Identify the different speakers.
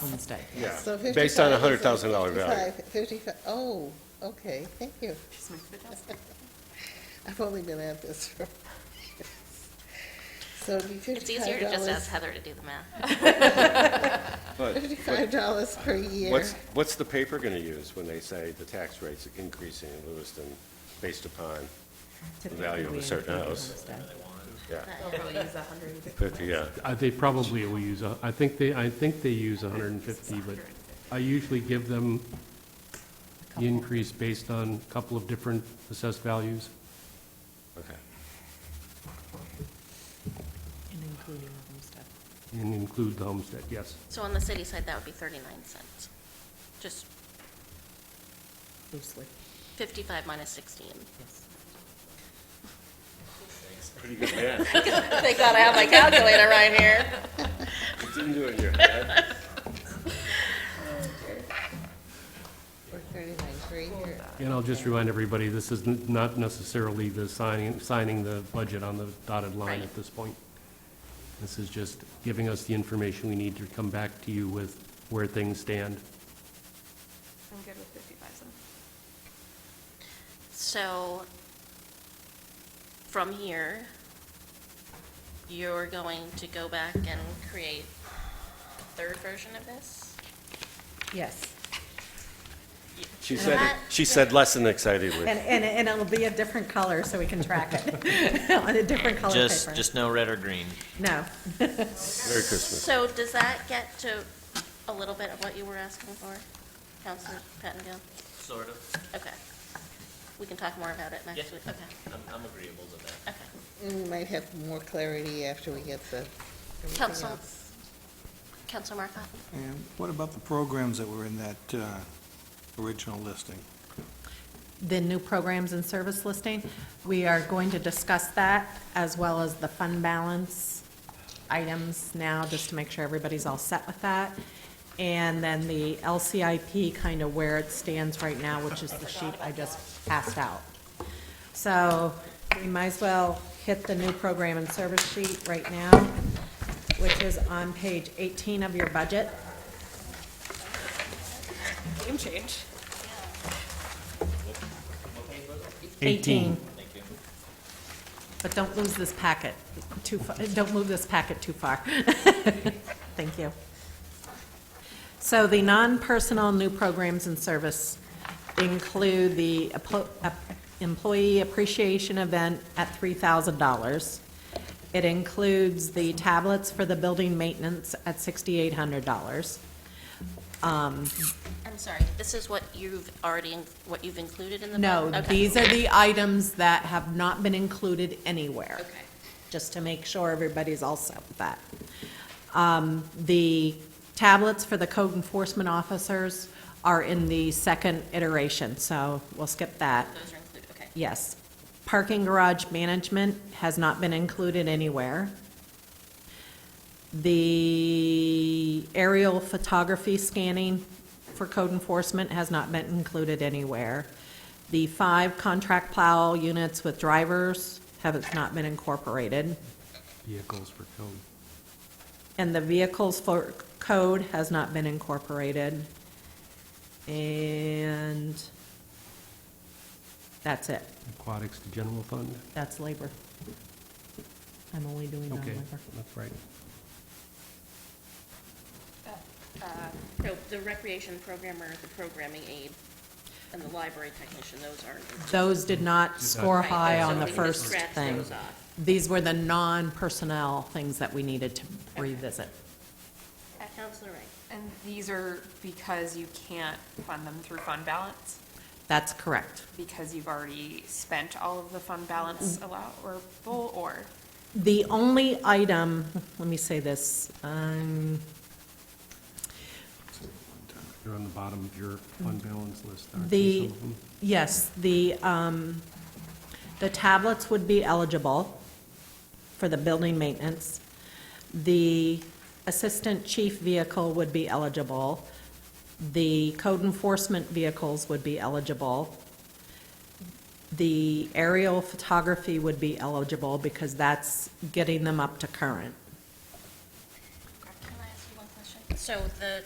Speaker 1: homestead.
Speaker 2: Yeah,
Speaker 3: So
Speaker 2: based on a
Speaker 3: 55
Speaker 2: hundred thousand dollar value.
Speaker 3: Fifty-five, fifty-five, oh, okay, thank you. I've only been at this for. So it'd be
Speaker 4: It's easier to just ask
Speaker 3: $55,
Speaker 4: Heather to do the math.
Speaker 2: But
Speaker 3: fifty-five dollars per year.
Speaker 2: what's, what's the paper gonna use when they say the tax rate's increasing in Lewiston based upon, value of a certain house. yeah, fifty, yeah.
Speaker 5: Uh, They probably will use, a- I think they, I think they use 150, but I usually give them the increase based on a couple of different assessed values.
Speaker 2: Okay.
Speaker 1: And including the homestead.
Speaker 5: And include the homestead, yes.
Speaker 4: So on the city side, that would be 39 cents. Just
Speaker 1: Loosely,
Speaker 4: 55 minus 16.
Speaker 1: yes.
Speaker 2: Pretty good math.
Speaker 4: Thank God I have my calculator right here.
Speaker 2: You didn't do it in your head.
Speaker 3: Or thirty-nine per year.
Speaker 5: And I'll just remind everybody, this is n- not necessarily the signing, signing the budget on the dotted line
Speaker 4: Right.
Speaker 5: at this point. This is just giving us the information we need to come back to you with where things stand.
Speaker 6: I'm good with fifty-five cents.
Speaker 4: So from here, you're going to go back and create a third version of this?
Speaker 1: Yes.
Speaker 2: She said, it- she said less than excitedly.
Speaker 1: And, and, and it'll be a different color so we can track it on a different color paper.
Speaker 7: Just, just no red or green.
Speaker 1: No.
Speaker 2: Merry Christmas.
Speaker 4: So does that get to a little bit of what you were asking for, Counselor Pattongill?
Speaker 7: Sort of.
Speaker 4: Okay. We can talk more about it next
Speaker 7: Yeah.
Speaker 4: week. Okay,
Speaker 7: I'm, I'm agreeable to that.
Speaker 4: okay.
Speaker 3: And we might have more clarity after we get the. everything
Speaker 4: Council,
Speaker 3: else.
Speaker 4: Council Markot?
Speaker 8: And what about the programs that were in that uh, original listing?
Speaker 1: The new programs and service listing, we are going to discuss that as well as the fund balance items now, just to make sure everybody's all set with that. And then the LCIP, kind of where it stands right now, which is the sheet I just passed out. So we might as well hit the new program and service sheet right now, which is on page 18 of your budget.
Speaker 6: Game change.
Speaker 1: 18. But don't lose this packet too, fa- don't move this packet too far. Thank you. So the non-personal new programs and service include the applo- ap- employee appreciation event at $3,000. It includes the tablets for the building maintenance at $6,800.
Speaker 4: I'm sorry, this is what you've already, in- what you've included in the?
Speaker 1: No,
Speaker 4: budget? Okay.
Speaker 1: these are the items that have not been included anywhere.
Speaker 4: Okay.
Speaker 1: just to make sure everybody's all set with that. Um, The tablets for the code enforcement officers are in the second iteration, so we'll skip that.
Speaker 4: Those are included, okay.
Speaker 1: Yes. Parking garage management has not been included anywhere. The aerial photography scanning for code enforcement has not been included anywhere. The five contract plow units with drivers have not been incorporated.
Speaker 5: Vehicles for code.
Speaker 1: And the vehicles for code has not been incorporated. And that's it.
Speaker 5: Aquatics to general fund.
Speaker 1: That's labor. I'm only doing
Speaker 5: Okay,
Speaker 1: non-labor.
Speaker 5: that's right.
Speaker 4: So the recreation programmer, the programming aide, and the library technician, those aren't. included.
Speaker 1: Those did not score
Speaker 4: Right,
Speaker 1: high
Speaker 4: so
Speaker 1: on
Speaker 4: we
Speaker 1: the
Speaker 4: can just
Speaker 1: first
Speaker 4: scratch
Speaker 1: thing.
Speaker 4: those off.
Speaker 1: These were the non-personnel things that we needed to revisit.
Speaker 4: Uh, Counselor Ray,
Speaker 6: And these are because you can't fund them through fund balance,
Speaker 1: That's correct.
Speaker 6: because you've already spent all of the fund balance allowable, or
Speaker 1: The only item, let me say this, um,
Speaker 5: They're on the bottom of your fund balance list, aren't they,
Speaker 1: The,
Speaker 5: some of them?
Speaker 1: yes, the, um, the tablets would be eligible for the building maintenance. The assistant chief vehicle would be eligible. The code enforcement vehicles would be eligible. The aerial photography would be eligible because that's getting them up to current.
Speaker 4: can I ask you one question? So the